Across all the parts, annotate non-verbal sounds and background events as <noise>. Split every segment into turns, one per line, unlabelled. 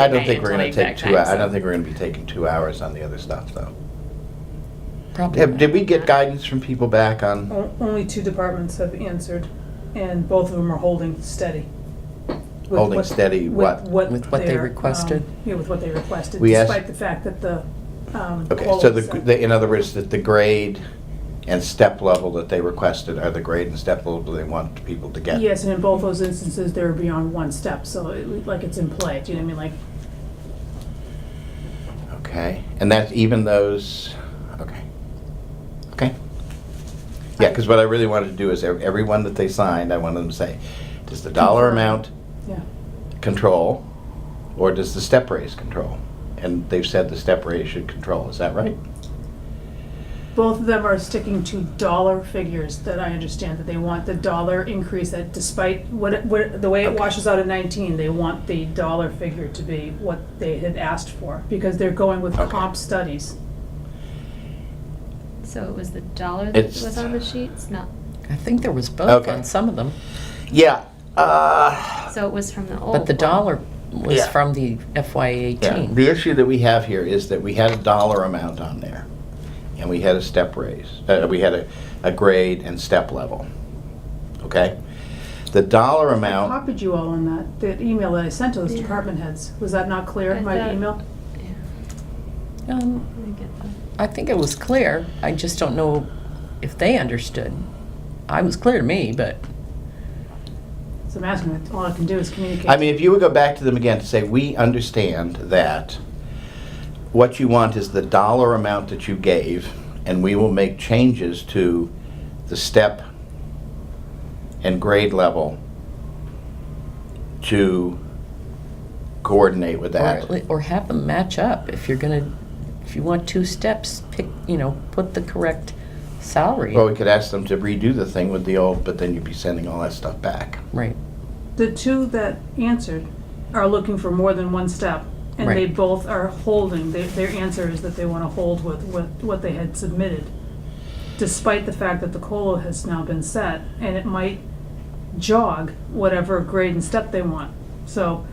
I don't
Okay,
think we're
until
gonna
they
take
backtrack,
two, hou- I
so-
don't think we're gonna be taking two hours on the other stuff, though.
Probably.
Did did we get
not.
guidance from people back on,
O- Only two departments have answered, and both of them are holding steady. With
Holding
what-
steady what?
With what they
their, um,
requested?
Yeah, with what they requested,
We asked-
despite the fact that the, um.
okay, so the,
quotes-
the- in other words, that the grade and step level that they requested are the grade and step level they want people to get?
Yes, and in both those instances, they're beyond one step, so it, like it's in play, do you know what I mean,
Okay, and that's even those, okay. Okay. Yeah, because what I really wanted to do is ev- everyone that they signed, I wanted them to say, does the dollar
Confirm.
amount
like, yeah.
control or does the step raise control? And they've said the step raise should control, is that right?
Both of them are sticking to dollar figures that I understand, that they want the dollar increase, that despite what, it- what, the way it
Okay.
washes out in nineteen, they want the dollar figure to be what they had asked for, because they're going with
Okay.
comp studies.
So it was the dollar that
It's-
was on the sheets, not,
I think there was both
Okay.
on some of them,
Yeah, uh,
so it was from the old.
but the
one.
dollar was
Yeah.
from the FY
yeah,
eighteen.
the issue that we have here is that we had a dollar amount on there. And we had a step raise, uh, we had a, a grade and step level, okay? The dollar
I
amount,
copied you all on that, that email that I sent to those
Yeah.
department heads, was that not clear,
I
my
thought-
email?
Yeah,
Um,
I get that.
I think it was clear, I just don't know if they understood. I was clear to me, but
So I'm asking, all I can do is communicate.
I mean, if you would go back to them again to say, we understand that what you want is the dollar amount that you gave, and we will make changes to the step and grade level to coordinate with
or,
that.
at lea- or have them match up. If you're gonna, if you want two steps, pick, you know, put the correct salary.
Or we could ask them to redo the thing with the old, but then you'd be sending all that stuff back.
Right,
The two that answered are looking for more than one step, and they
Right.
both are holding, their, their answer is that they wanna hold with what, what they had submitted, despite the fact that the COLA has now been set, and it might jog whatever grade and step they want. So,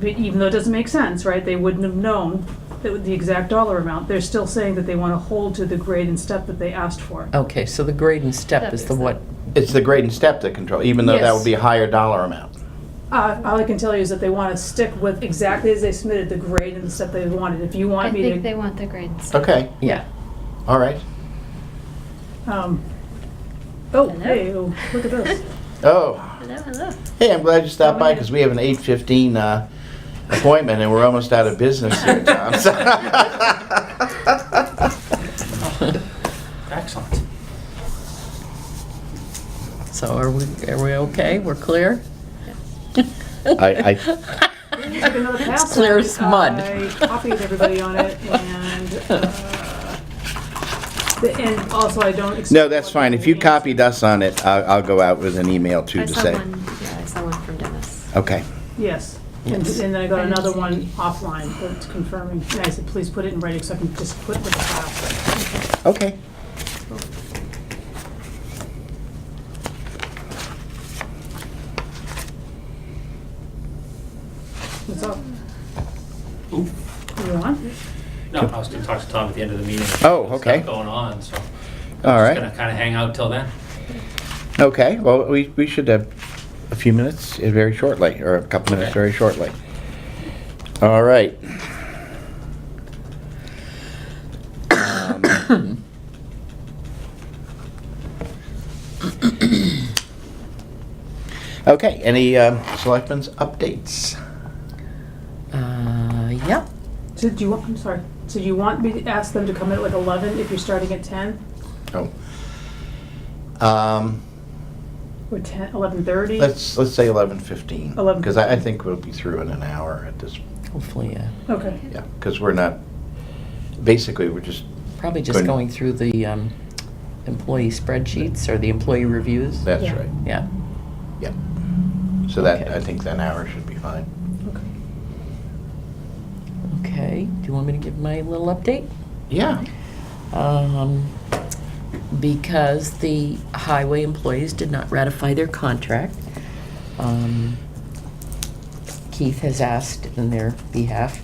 but even though it doesn't make sense, right, they wouldn't have known the, the exact dollar amount, they're still saying that they wanna hold to the grade and step that they asked for.
okay, so the grade and step
That
is the
makes
what,
It's the grade and step that control, even though that
Yes.
would be a higher dollar amount.
Uh, all I can tell you is that they want to stick with exactly as they submitted the grade and the stuff they wanted. If you
I
want me
think they
to,
want the grades.
Okay,
yeah.
all right.
um, oh,
Hello?
hey, oh, look at this.
<laughs>
Oh.
Hello, hello.
Hey, I'm glad you stopped by
Dominic.
because we have an 8:15 uh, appointment and we're almost out of business here,
<laughs>
Tom. So-
Excellent.
So are we, are we okay? We're clear?
I-
<laughs> I took another pass.
It's clear
on it.
as mud.
I copied everybody on
<laughs>
it and, uh, the- and also I don't.
No, that's fine. If you copied us on it, I'll I'll go out with an email too
I
to
saw
say.
one- Yeah, I saw one from Dennis.
Okay,
Yes, and
Yes.
and then I got
I didn't
another
see
one
any.
offline that's confirming. And I said, please put it in writing so I can just put with the file.
okay.
What's up? You on?
No, I was gonna talk to Tom at the end of the meeting.
Oh,
There's
okay.
Stuff going on, so.
All
Just gonna
right.
kinda hang out till then.
Okay, well, we we should have a few minutes uh, very shortly, or a couple minutes
Okay.
very shortly. All right. Um, Okay, any um, selectmen's updates?
Uh, yeah,
So do you, want- I'm sorry, so you want me to ask them to come in at like eleven if you're starting at ten,
Oh. Um,
or ten, eleven thirty?
Let's, let's say 11:15.
11:15.
Because I I think we'll be through in an hour at this,
hopefully, uh, yeah.
Okay,
yeah, because we're not, basically, we're just,
Probably just
Couldn't-
going through the um, employee spreadsheets or the employee reviews.
that's
Yeah.
right,
Yeah,
yeah. So that,
Okay.
I think that hour should be fine.
okay.
okay. Do you want me to give my little update?
Yeah.
Um, Because the highway employees did not ratify their contract. um, Keith has asked in their behalf.